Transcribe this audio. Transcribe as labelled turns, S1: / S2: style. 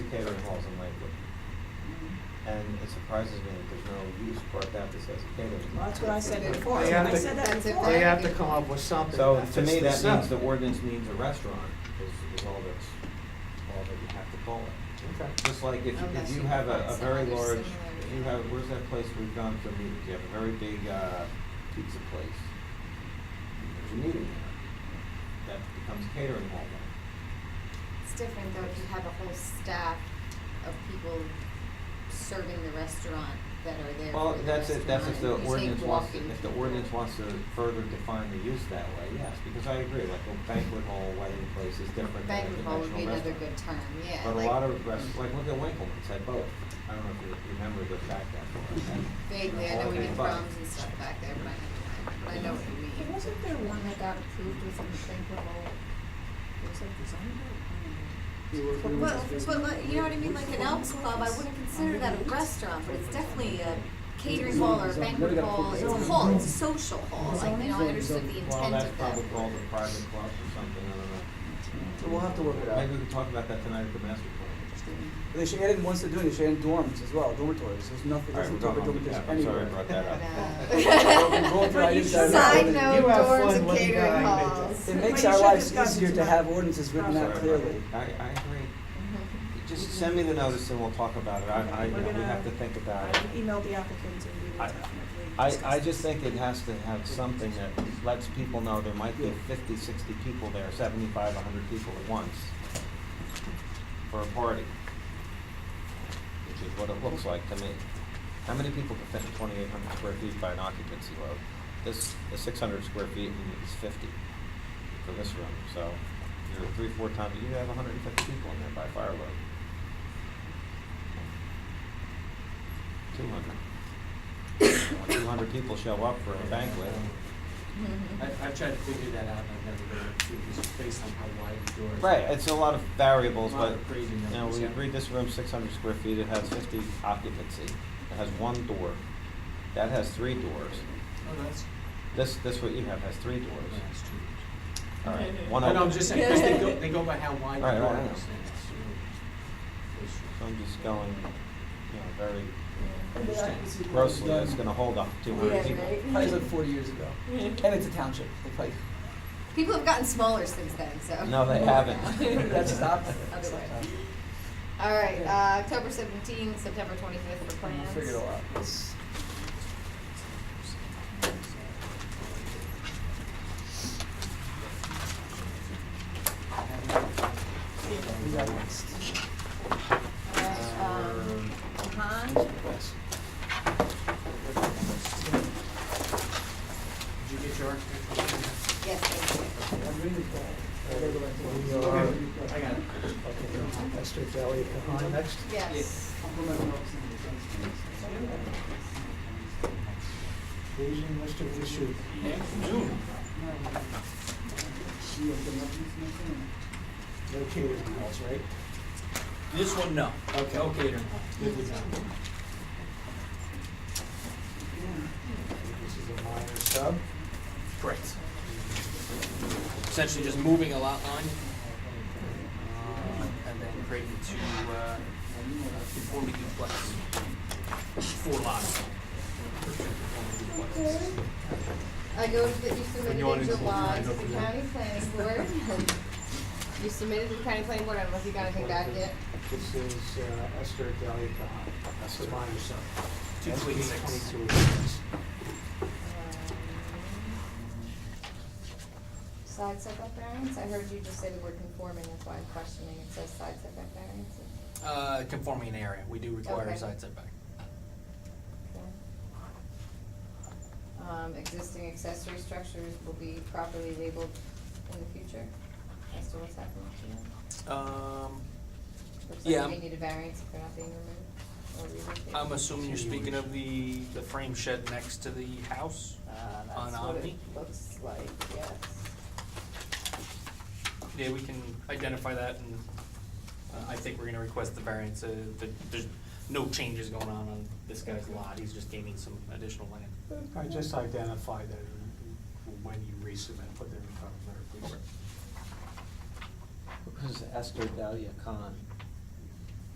S1: catering halls in Lakewood. And it surprises me that there's no use for that that says catering.
S2: Well, that's what I said before,
S3: They
S2: I
S3: have to-
S2: said that
S4: That's it.
S2: before.
S3: They have to come up with something.
S1: So
S3: that
S1: to
S3: fits
S1: me,
S3: the
S1: that
S3: set.
S1: means the ordinance means a restaurant is, is all that's, all that you have to call it.
S3: Okay.
S1: Just like if,
S4: Unless
S1: if you
S4: you
S1: have a,
S4: find
S1: a
S4: some
S1: very
S4: other
S1: large,
S4: similar-
S1: if you have, where's that place we've gone for meetings? You have a very big, uh, pizza place. There's a meeting there. That becomes catering hall then.
S4: It's different though if you have a whole staff of people serving the restaurant that are there
S1: Well,
S4: for the
S1: that's it, that's if the
S4: restaurant, and you take
S1: ordinance wants,
S4: walking
S1: if the
S4: people.
S1: ordinance wants to further define the use that way, yes, because I agree, like a banquet hall, wedding place is different than a
S4: Banquet hall would be
S1: conventional
S4: another
S1: restaurant.
S4: good term, yeah.
S1: But a
S4: like,
S1: lot of restaurants, like look at Winkleman's, had both. I don't know if you remember the fact that.
S4: Vaguely, I know we
S1: did
S4: did proms and stuff back there, but I, I know what you
S2: But
S4: mean.
S2: Wasn't there one that got approved within Banquetball? Was that designed
S4: Well, but like, you know what I mean, like an Elks Club, I wouldn't consider that a restaurant, but it's definitely a catering hall or a banquet hall, it's a hall, it's a social hall, like, you know, I understood the
S1: Well,
S4: intent
S1: that's
S4: of that.
S1: probably called a private club or something, I don't know.
S5: So we'll have to work it out.
S1: Maybe we could talk about that tonight at the master plan.
S5: They should add in, once they're doing, it, they should add in dormitories as well, dormitories, there's nothing,
S1: All right,
S5: there's
S1: we're
S5: no talk
S1: going
S5: about
S1: on to
S5: dormitories
S1: that. I'm sorry I
S5: anywhere.
S1: brought that
S4: Ta-da.
S5: We're going through items that are not
S4: Side
S5: really-
S3: You
S4: note,
S3: have
S4: doors
S3: fun
S4: and
S3: when you
S4: catering
S3: die, Mitchell.
S4: halls.
S5: It
S2: Well,
S5: makes
S2: you
S5: our
S2: should
S5: lives
S2: discuss
S5: easier
S2: it
S5: to
S2: tonight.
S5: have ordinances written
S2: Sorry
S5: out
S2: about
S5: clearly.
S1: I, I agree. Just send me the notice and we'll talk about it. I, I,
S2: We're
S1: we
S2: gonna-
S1: have to think about
S2: I
S1: it.
S2: emailed the applicants and we will
S1: I-
S2: definitely
S1: I,
S2: discuss
S1: I
S2: this.
S1: just think it has to have something that lets people know there might be fifty, sixty people there, seventy-five, hundred people at once for a party, which is what it looks like to me. How many people can fit in twenty-eight hundred square feet by an occupancy load? This is six hundred square feet and it's fifty for this room, so you're three, four times, you have hundred and fifty people in there by fire load. Two hundred. Two hundred people show up for a banquet.
S6: I, I've tried to figure that out, and I've never been able to, just based on how wide the doors.
S1: Right, it's a lot of variables, but,
S6: Crazy
S1: you know,
S6: numbers,
S1: we
S6: yeah.
S1: agreed this room's six hundred square feet, it has fifty occupancy, it has one door, that has three doors.
S6: Oh, that's,
S1: This, this what you have has three doors,
S6: that's true.
S1: all right, one
S6: No,
S1: open.
S6: no, I'm just saying, 'cause they go, they go by how wide
S1: Right, right, I
S6: the doors.
S1: know.
S6: and it's, you know, it's-
S1: So I'm just going, you know, very grossly,
S5: Grossly,
S1: that's gonna hold up two hundred people.
S5: Probably like forty years ago, and it's a township, they probably,
S4: People have gotten smaller since then, so.
S1: No, they haven't.
S5: that stopped.
S4: Other way. All right, uh, October seventeenth, September twenty-fifth for
S5: We'll
S4: plans.
S5: Figure it all out. It's- we got next.
S4: All right, um, uh-huh.
S6: Did you get your architectural?
S4: Yes, thank
S5: I'm reading
S3: We
S5: the-
S3: are-
S6: I got it.
S3: That's to Elliot Kahan next.
S4: you. Yes.
S3: Asian Mr. Bishop. No catering halls, right?
S6: This one, no. Okay. No catering. Good with that.
S3: This is a minor sub.
S6: Correct. Essentially just moving a lot line, uh, and then creating two, uh, conforming duplex, four lots. Duplexes.
S4: I go to that you submitted
S6: you want
S4: in
S6: to include
S4: July
S6: mine,
S4: to
S6: don't
S4: the
S6: forget.
S4: county planning board. You submitted to the county planning board, I don't know if you got anything back yet.
S3: This is uh, Esther Elliot Kahan. That's a minor sub.
S6: Two
S3: SB
S6: point six.
S3: 2286.
S4: Um, Side setback variance, I heard you just say the word conforming, that's why I'm questioning, it says side setback variance.
S6: Uh, conforming an area, we do require
S4: Okay.
S6: a side setback.
S4: Okay. Um, existing accessory structures will be properly labeled in the future, as to what's happening to them.
S6: Um,
S4: Looks
S6: Yeah.
S4: like they need a variance if they're not being removed or relocated.
S6: I'm assuming you're speaking of the, the frame shed next to the house?
S4: Uh,
S6: on
S4: that's what it
S6: Omni?
S4: looks like, yes.
S6: Yeah, we can identify that and uh, I think we're gonna request the variance, uh, that there's no changes going on on this guy's lot, he's just gaining some additional land.
S7: I just identify that in- when you resubmit, put it in the cover letter, please.
S1: Who's Esther Delia Khan?